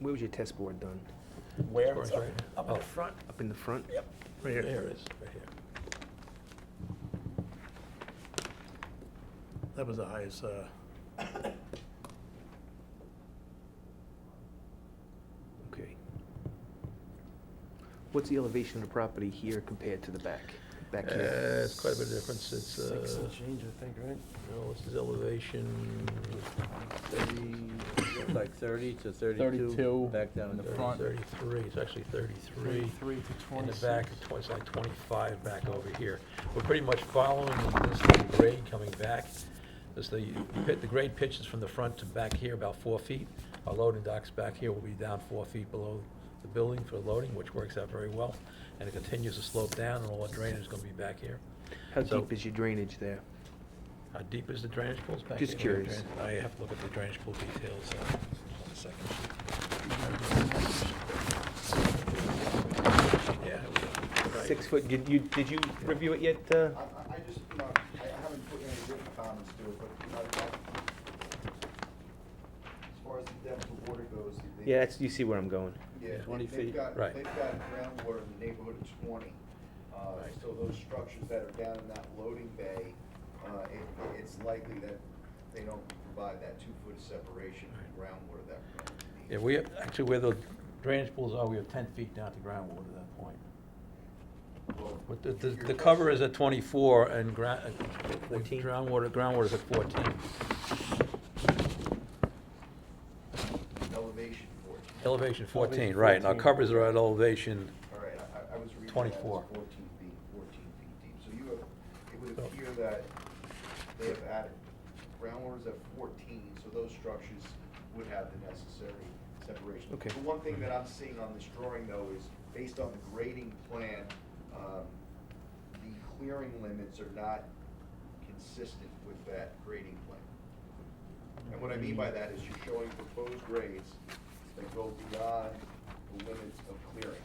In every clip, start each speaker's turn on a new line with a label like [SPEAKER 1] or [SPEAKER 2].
[SPEAKER 1] Where was your test board done?
[SPEAKER 2] Where?
[SPEAKER 3] It's
[SPEAKER 2] It's up-
[SPEAKER 3] right here.
[SPEAKER 2] Up in
[SPEAKER 3] Oh.
[SPEAKER 2] the front?
[SPEAKER 1] Up in the front?
[SPEAKER 2] Yep.
[SPEAKER 1] Right
[SPEAKER 3] There
[SPEAKER 1] here.
[SPEAKER 3] it is, right here.
[SPEAKER 4] That was the highest, uh,
[SPEAKER 1] Okay. What's the elevation of the property here compared to the back? Back
[SPEAKER 3] Uh,
[SPEAKER 1] here?
[SPEAKER 3] It's quite a bit of difference, it's, uh,
[SPEAKER 5] Six and change, I think, right?
[SPEAKER 3] no, what's his elevation?
[SPEAKER 6] Thirty, like thirty to thirty-two.
[SPEAKER 2] 32.
[SPEAKER 6] Back down
[SPEAKER 2] In the
[SPEAKER 6] to
[SPEAKER 3] Thirty-
[SPEAKER 2] front.
[SPEAKER 3] Thirty-three, it's actually thirty-three.
[SPEAKER 5] Thirty-three to
[SPEAKER 3] In the
[SPEAKER 5] twenty-six.
[SPEAKER 3] back, it's twen- it's like twenty-five back over here. We're pretty much following this little grade coming back. As the, pit- the grade pitches from the front to back here about four feet. Our loading docks back here will be down four feet below the building for loading, which works out very well. And it continues to slope down, and all the drainage is gonna be back here.
[SPEAKER 1] How
[SPEAKER 3] So-
[SPEAKER 1] deep is your drainage there?
[SPEAKER 3] How deep is the drainage pools back
[SPEAKER 1] Just
[SPEAKER 3] here?
[SPEAKER 1] curious.
[SPEAKER 3] I have to look at the drainage pool details, uh, on the second sheet. Yeah. it was, uh, right.
[SPEAKER 1] Six foot, did you, did you review it yet? uh?
[SPEAKER 7] I, I- I just, you know, I I haven't put any written comments to it, but, you know, I- as far as the depth of water goes. they-
[SPEAKER 1] Yeah, that's, you see where I'm going.
[SPEAKER 7] Yeah, they-
[SPEAKER 6] 20
[SPEAKER 7] they've
[SPEAKER 6] feet.
[SPEAKER 7] got,
[SPEAKER 3] Right.
[SPEAKER 7] they've got groundwater in the neighborhood of twenty. Uh,
[SPEAKER 3] Right.
[SPEAKER 7] so those structures that are down in that loading bay, uh, it, it- it's likely that they don't provide that two-foot separation from groundwater that. we're going to need.
[SPEAKER 3] Yeah, we, actually, where the drainage pools are, we have ten feet down to groundwater at that point.
[SPEAKER 7] Well,
[SPEAKER 3] But the, the,
[SPEAKER 7] your
[SPEAKER 3] the cover
[SPEAKER 7] question-
[SPEAKER 3] is at twenty-four and ground,
[SPEAKER 1] Fourteen.
[SPEAKER 3] groundwater, groundwater's at fourteen.
[SPEAKER 7] Elevation fourteen.
[SPEAKER 3] Elevation fourteen,
[SPEAKER 2] Elevation
[SPEAKER 3] right, and our
[SPEAKER 2] 14.
[SPEAKER 3] covers are at elevation,
[SPEAKER 7] All right, I, I was reading that as
[SPEAKER 3] 24.
[SPEAKER 7] fourteen feet, fourteen feet deep. So you have, it would
[SPEAKER 3] So-
[SPEAKER 7] appear that they have added, groundwater is at fourteen, so those structures would have the necessary separation.
[SPEAKER 1] Okay.
[SPEAKER 7] The one thing that I'm seeing on this drawing though is, based on the grading plan, um, the clearing limits are not consistent with that grading plan. And what I mean by that is you're showing proposed grades that go beyond the limits of clearing.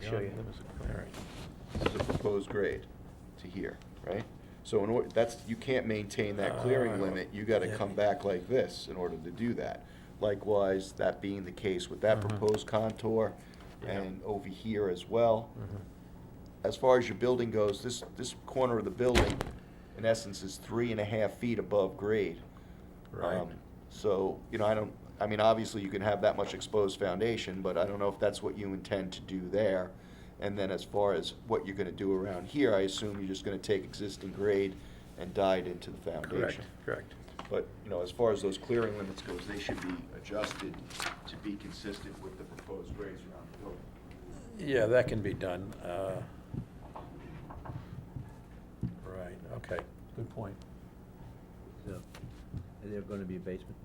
[SPEAKER 1] Show you.
[SPEAKER 7] This is a proposed grade to here, right? So in order, that's, you can't maintain that
[SPEAKER 3] Uh,
[SPEAKER 7] clearing limit, you gotta
[SPEAKER 3] yeah.
[SPEAKER 7] come back like this in order to do that. Likewise, that being the case with that
[SPEAKER 3] Mhm.
[SPEAKER 7] proposed contour
[SPEAKER 3] Yeah. Mm-hmm.
[SPEAKER 7] and over here as well. As far as your building goes, this, this corner of the building, in essence, is three and a half feet above grade.
[SPEAKER 3] right?
[SPEAKER 7] Um, So, you know, I don't, I mean, obviously you can have that much exposed foundation, but I don't know if that's what you intend to do there. And then as far as what you're gonna do around here, I assume you're just gonna take existing grade and dye it into the
[SPEAKER 3] Correct,
[SPEAKER 7] foundation.
[SPEAKER 3] correct.
[SPEAKER 7] But, you know, as far as those clearing limits goes, they should be adjusted to be consistent with the proposed grades around the building.
[SPEAKER 3] Yeah, that can be done. uh, Right, okay, good point.
[SPEAKER 6] So, Is there gonna be a basement?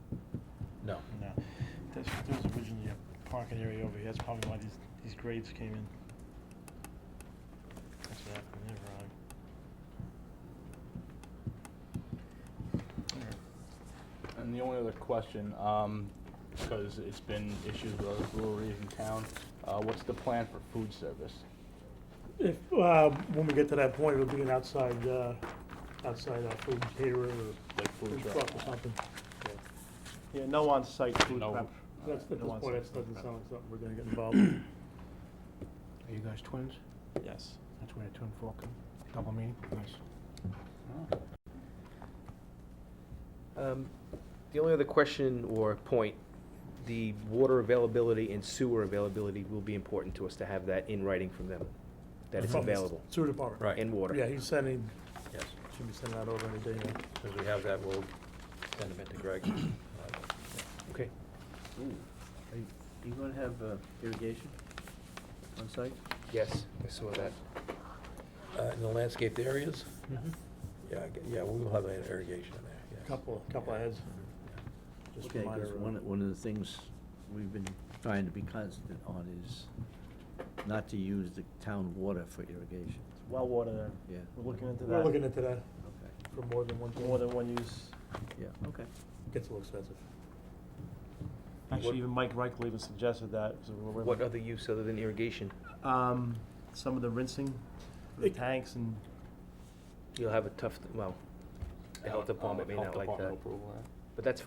[SPEAKER 3] No.
[SPEAKER 5] No, there's, there's originally a parking area over here, that's probably why these, these grades came in. That's what happened there, Ron. Alright.
[SPEAKER 2] And the only other question, um, because it's been issues with other breweries in town, uh, what's the plan for food service?
[SPEAKER 4] if, uh, when we get to that point, it'll be an outside, uh, outside uh, food caterer or
[SPEAKER 2] Like food
[SPEAKER 4] food
[SPEAKER 2] truck?
[SPEAKER 4] truck or something.
[SPEAKER 5] Yeah, no on-site food
[SPEAKER 2] No.
[SPEAKER 5] prep.
[SPEAKER 4] That's, at this
[SPEAKER 5] No
[SPEAKER 4] point,
[SPEAKER 5] on-site
[SPEAKER 4] that's
[SPEAKER 5] food
[SPEAKER 4] doesn't
[SPEAKER 5] prep.
[SPEAKER 4] sound like something we're gonna get involved in.
[SPEAKER 5] Are you guys twins? Yes. That's where a twin Falcon, double meaning? Nice.
[SPEAKER 1] Um, The only other question or point, the water availability and sewer availability will be important to us to have that in writing from them, that it's
[SPEAKER 4] From the
[SPEAKER 1] available,
[SPEAKER 4] Sewer department.
[SPEAKER 3] Right.
[SPEAKER 1] and water.
[SPEAKER 4] Yeah, he's sending,
[SPEAKER 3] Yes,
[SPEAKER 4] should be sending that over any day now.
[SPEAKER 3] as we have that, we'll send them in to Greg.
[SPEAKER 1] Okay.
[SPEAKER 6] Ooh. Are you- you gonna have uh, irrigation on site?
[SPEAKER 1] Yes, I saw that.
[SPEAKER 3] Uh, In the landscaped areas? Yeah, I gue- yeah, we will have an irrigation in there, yes.
[SPEAKER 4] Couple, couple of heads. Just
[SPEAKER 6] Okay,
[SPEAKER 4] minor,
[SPEAKER 6] because
[SPEAKER 4] uh,
[SPEAKER 6] one, one of the things we've been trying to be constant on is not to use the town water for irrigation.
[SPEAKER 5] Well water there.
[SPEAKER 6] Yeah.
[SPEAKER 5] We're looking into that.
[SPEAKER 4] We're looking into that
[SPEAKER 6] Okay,
[SPEAKER 4] for more than one thing.
[SPEAKER 5] More than one use.
[SPEAKER 6] yeah, okay.
[SPEAKER 4] Gets a little expensive.
[SPEAKER 1] What-
[SPEAKER 5] Actually, even Mike Reichel even suggested that, so we're.
[SPEAKER 1] What other use other than irrigation?
[SPEAKER 5] Um, some of the rinsing, for the
[SPEAKER 4] It-
[SPEAKER 5] tanks and,
[SPEAKER 1] You'll have a tough, well, the health department may
[SPEAKER 2] Health
[SPEAKER 1] not like
[SPEAKER 2] Uh, department
[SPEAKER 1] that,
[SPEAKER 2] approval, huh?
[SPEAKER 1] but that's fine.